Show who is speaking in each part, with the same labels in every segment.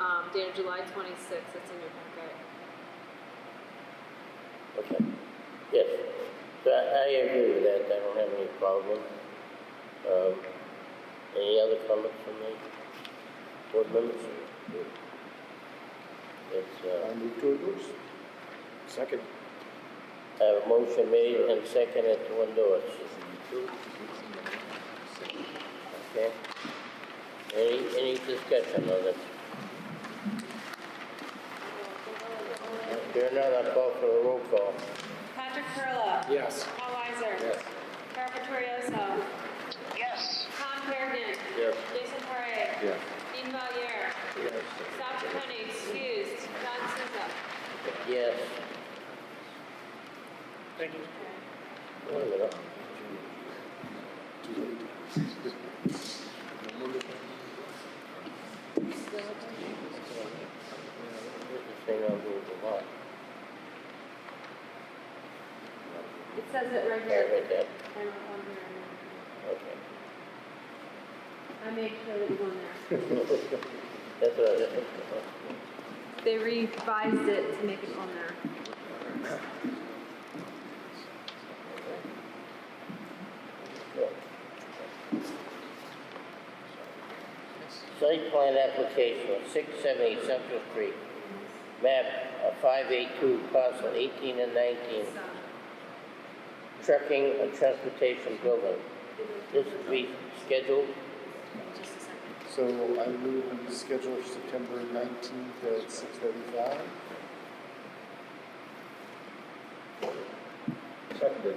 Speaker 1: um, dated July twenty-sixth, that's in your packet.
Speaker 2: Okay. Yes, So I I agree with that, I don't have any problem. Um, Any other comments from the board members? It's, uh,
Speaker 3: I move to endorse. Second.
Speaker 2: I have a motion made and seconded to endorse. Okay? Any, any discussion on it? Here none, I call for a roll call.
Speaker 4: Patrick Perla.
Speaker 3: Yes.
Speaker 4: Paul Weiser.
Speaker 3: Yes.
Speaker 4: Carol Vittorioso. Yes. Tom Kerrigan.
Speaker 3: Yes.
Speaker 4: Jason Parre.
Speaker 3: Yes.
Speaker 4: Dean Valier. Sal Chaconi, excused. John Siza.
Speaker 2: Yes.
Speaker 5: Thank you.
Speaker 2: Wait a minute. This thing I'll do with the lot.
Speaker 1: It says it right
Speaker 2: Sorry
Speaker 1: here.
Speaker 2: about that.
Speaker 1: I don't want there.
Speaker 2: Okay.
Speaker 1: I made sure that it was on there.
Speaker 2: That's what I was,
Speaker 1: They revised it to make it on there.
Speaker 2: yeah. Site plan application, six seventy Central Street, map uh, five eight two, parcel eighteen and nineteen. Trucking and transportation building. This will be scheduled
Speaker 3: So I move we schedule September nineteenth at six thirty-five. Seconded.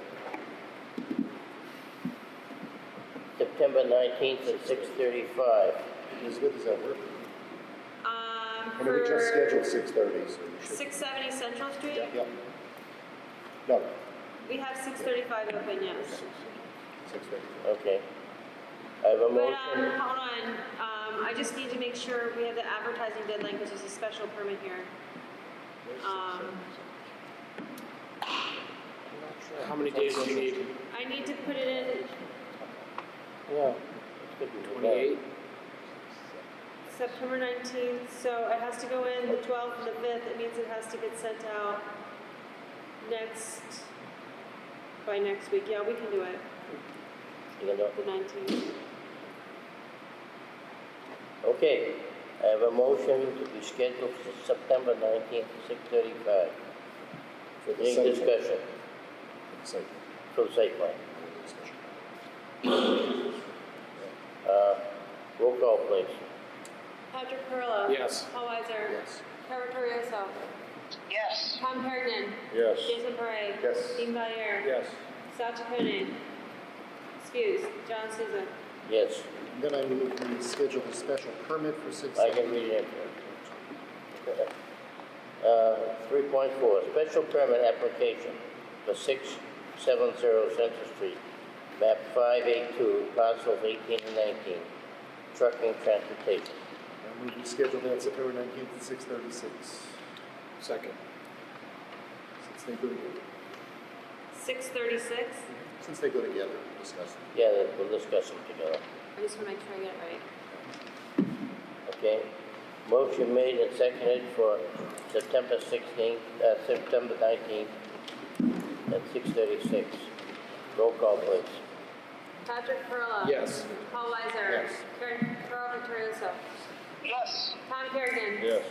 Speaker 2: September nineteenth at six thirty-five.
Speaker 3: Elizabeth, does that work?
Speaker 4: Um,
Speaker 3: I mean, we just scheduled
Speaker 4: for
Speaker 3: six thirty, so we should.
Speaker 4: six seventy Central Street,
Speaker 3: Yeah. No,
Speaker 4: we have six thirty-five open, yes.
Speaker 3: six thirty.
Speaker 2: Okay. I have a
Speaker 4: But, um,
Speaker 2: motion.
Speaker 4: hold on, um, I just need to make sure we have the advertising deadline, because there's a special permit here. Um,
Speaker 5: How many days do you need?
Speaker 4: I need to put it in
Speaker 2: Yeah.
Speaker 5: Twenty-eight?
Speaker 4: September nineteenth, so it has to go in the twelfth and the fifth, it means it has to get sent out next, by next week, yeah, we can do it,
Speaker 2: You know,
Speaker 4: the nineteenth.
Speaker 2: Okay, I have a motion to be scheduled for September nineteenth, six thirty-five. Any
Speaker 3: Second.
Speaker 2: discussion
Speaker 3: Second.
Speaker 2: from site plan? Uh, roll call, please.
Speaker 4: Patrick Perla.
Speaker 5: Yes.
Speaker 4: Paul Weiser.
Speaker 3: Yes.
Speaker 4: Carol Torriello. Yes. Tom Hergen.
Speaker 3: Yes.
Speaker 4: Jason Parre.
Speaker 3: Yes.
Speaker 4: Dean Valier.
Speaker 3: Yes.
Speaker 4: Sal Chaconi. Excuse, John Souza.
Speaker 2: Yes,
Speaker 3: Then I move we schedule a special permit for six.
Speaker 2: I can read it. Uh, three point four, special permit application for six seven zero Center Street, map five eight two, parcels eighteen and nineteen, trucking transportation.
Speaker 3: I move we schedule that September nineteenth at six thirty-six.
Speaker 5: Second.
Speaker 3: Since they go together,
Speaker 4: Six thirty-six.
Speaker 3: since they go together, discuss.
Speaker 2: Yeah, we'll discuss them together.
Speaker 1: I just wanna make sure I get it right.
Speaker 2: Okay, motion made and seconded for September sixteenth, uh, September nineteenth at six thirty-six. Roll call, please.
Speaker 1: Patrick Perla.
Speaker 5: Yes.
Speaker 1: Paul Weiser.
Speaker 3: Yes.
Speaker 1: Karen, Carol Vittorioso. Yes. Tom Kerrigan.
Speaker 3: Yes.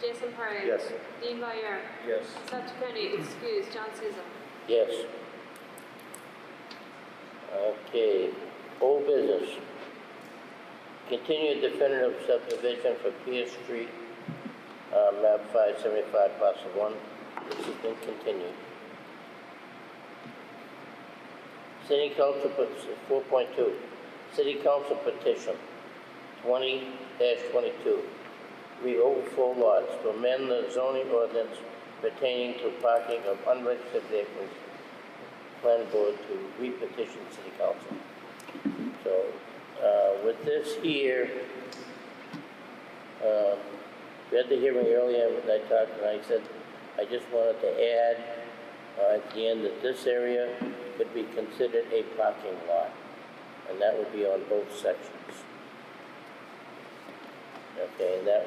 Speaker 1: Jason Parre.
Speaker 3: Yes.
Speaker 1: Dean Valier.
Speaker 3: Yes.
Speaker 1: Sal Chaconi, excuse, John Souza.
Speaker 2: Yes. Okay, old business. Continued definitive subdivision for Pierce Street, uh, map five seventy-five, parcel one. This has been continued. City Council, four point two, City Council petition twenty twenty-two. We overflow lots to amend the zoning ordinance pertaining to parking of unregistered vehicles. Plan board to repetition city council. So, uh, with this here, uh, we had the hearing earlier, and I talked, and I said, I just wanted to add, uh, at the end, that this area could be considered a parking lot, and that would be on both sections. Okay, and that